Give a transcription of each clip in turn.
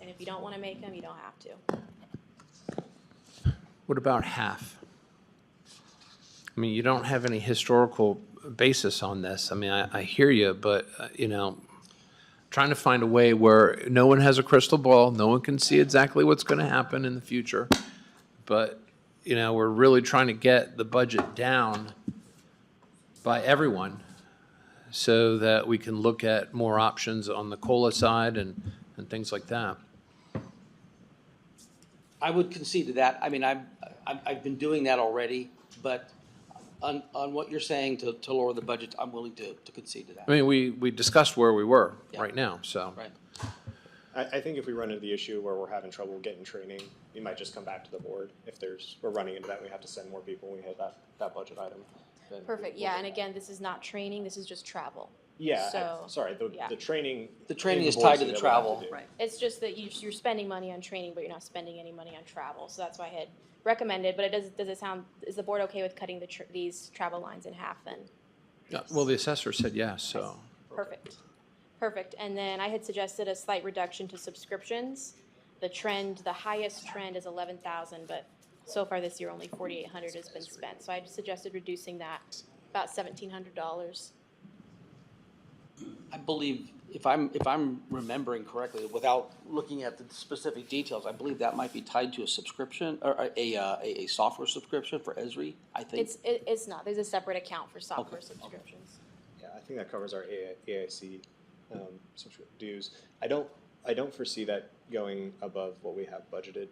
And if you don't want to make them, you don't have to. What about half? I mean, you don't have any historical basis on this. I mean, I, I hear you, but, uh, you know, trying to find a way where no one has a crystal ball, no one can see exactly what's going to happen in the future. But, you know, we're really trying to get the budget down by everyone so that we can look at more options on the COLA side and, and things like that. I would concede to that. I mean, I'm, I'm, I've been doing that already, but on, on what you're saying to, to lower the budget, I'm willing to, to concede to I that, mean, we, we discussed where we were right Yeah. now, so. right? I, I think if we run into the issue where we're having trouble getting training, we might just come back to the board. If there's, we're running into that, we have to send more people, we hit that, that budget item. then Perfect, we'll yeah, get and back. again, this is not training, this is just travel. Yeah, so, I- sorry, the, yeah. the training. The training in is tied to the Boise that we'll have travel. do. Right. It's just that you, you're spending money on training, but you're not spending any money on travel, so that's why I had recommended, but it does, does it sound, is the board okay with cutting the, tr- these travel lines in half then? Yeah, Well, the assessor said yes, so. Perfect. Perfect. And then I had suggested a slight reduction to subscriptions. The trend, the highest trend is eleven thousand, but so far this year, only forty-eight hundred has been spent. So I suggested reducing that about seventeen hundred dollars. I believe, if I'm, if I'm remembering correctly, without looking at the specific details, I believe that might be tied to a subscription, or a, a, uh, a, a software subscription for Esri, I think. It's, it, it's not, there's a separate account for software Okay, okay. subscriptions. Yeah, I think that covers our AI AIC um, subscri- dues. I don't, I don't foresee that going above what we have budgeted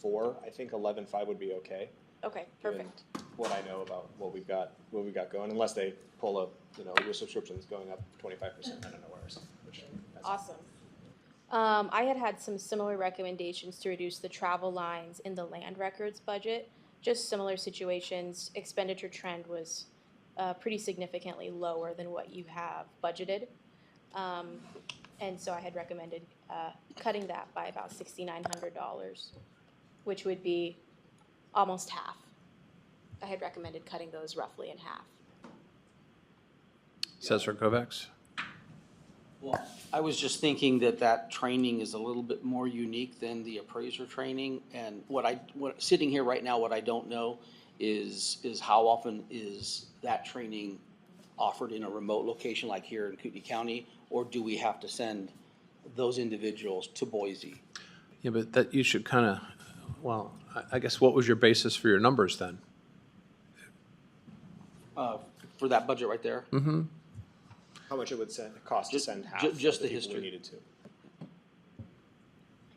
for. I think eleven-five would be okay. Okay, given perfect. What I know about what we've got, what we've got going, unless they pull up, you know, your subscription's going up twenty-five percent, I don't know where or something. which- that's- Awesome. Um, I had had some similar recommendations to reduce the travel lines in the land records budget. Just similar situations, expenditure trend was uh, pretty significantly lower than what you have budgeted. Um, and so I had recommended uh, cutting that by about $6,900, which would be almost half. I had recommended cutting those roughly in half. Assessor Kovacs? Well, I was just thinking that that training is a little bit more unique than the appraiser training. And what I, what, sitting here right now, what I don't know is, is how often is that training offered in a remote location like here in Kootenai County? Or do we have to send those individuals to Boise? Yeah, but that, you should kind of, well, I- I guess what was your basis for your numbers then? Uh, for that budget right there? How much it would send, cost to Ju- send ju- half? of just the people we history. Needed to.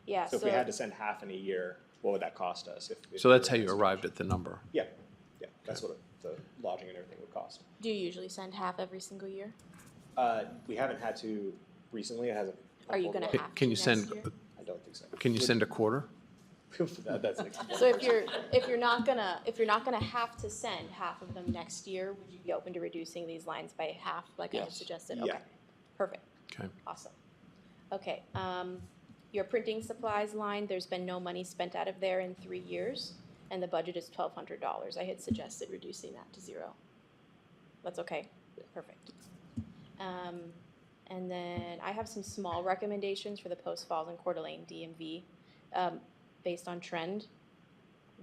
Yeah, So so. if we had to send half in a year, what would that cost us? If- if So that's how we were- you arrived at the number. Yeah, yeah, that's what the lodging and everything would cost. Do you usually send half every single year? Uh, we haven't had to recently, it hasn't. Are you gonna unfolded Hey, well. Half Can you next send, year. I don't think so. can you send a quarter? That- That's an So if you're, if you're not gonna, if you're not gonna have to send half of them next year, would you be open to reducing these lines by half, like I had Yes. suggested? Yeah. Okay, perfect, Okay. awesome. Okay, um, your printing supplies line, there's been no money spent out of there in three years, and the budget is twelve hundred dollars. I had suggested reducing that to zero. That's okay, perfect. Um, and then I have some small recommendations for the Post Falls and Coeur d'Alene DMV, um, based on trend.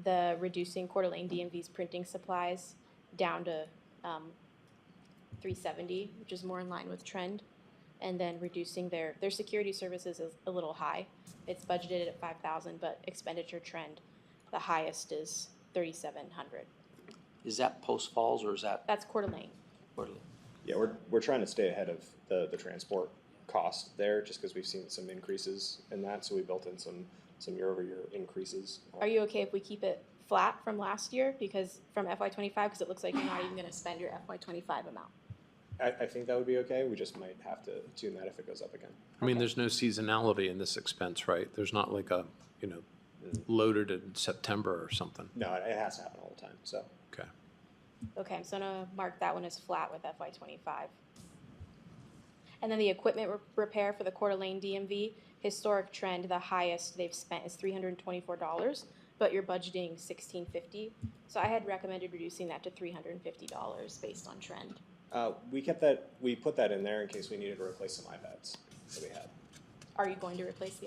The reducing Coeur d'Alene DMV's printing supplies down to, um, three seventy, which is more in line with trend. And then reducing their, their security services is a little high. It's budgeted at five thousand, but expenditure trend, the highest is thirty-seven hundred. Is that Post Falls or is that? That's Coeur d'Alene. Portland? Yeah, we're, we're trying to stay ahead of the, the transport cost there, just because we've seen some increases in that, so we built in some, some year-over-year increases. Are you okay if we keep it flat from last year because from FY twenty-five, because it looks like you're not even gonna spend your FY twenty-five amount? I, I think that would be okay, we just might have to tune that if it goes up again. I mean, there's no seasonality in this expense, right? There's not like a, you know, loaded in September or something. No, it, it has to happen all the time, so. Okay. Okay, so I'm gonna mark that one as flat with FY twenty-five. And then the equipment re- repair for the Coeur d'Alene DMV, historic trend, the highest they've spent is three hundred and twenty-four dollars, but you're budgeting sixteen fifty. So I had recommended reducing that to three hundred and fifty dollars based on trend. Uh, we kept that, we put that in there in case we needed to replace some iPads that we had. Are you going to replace the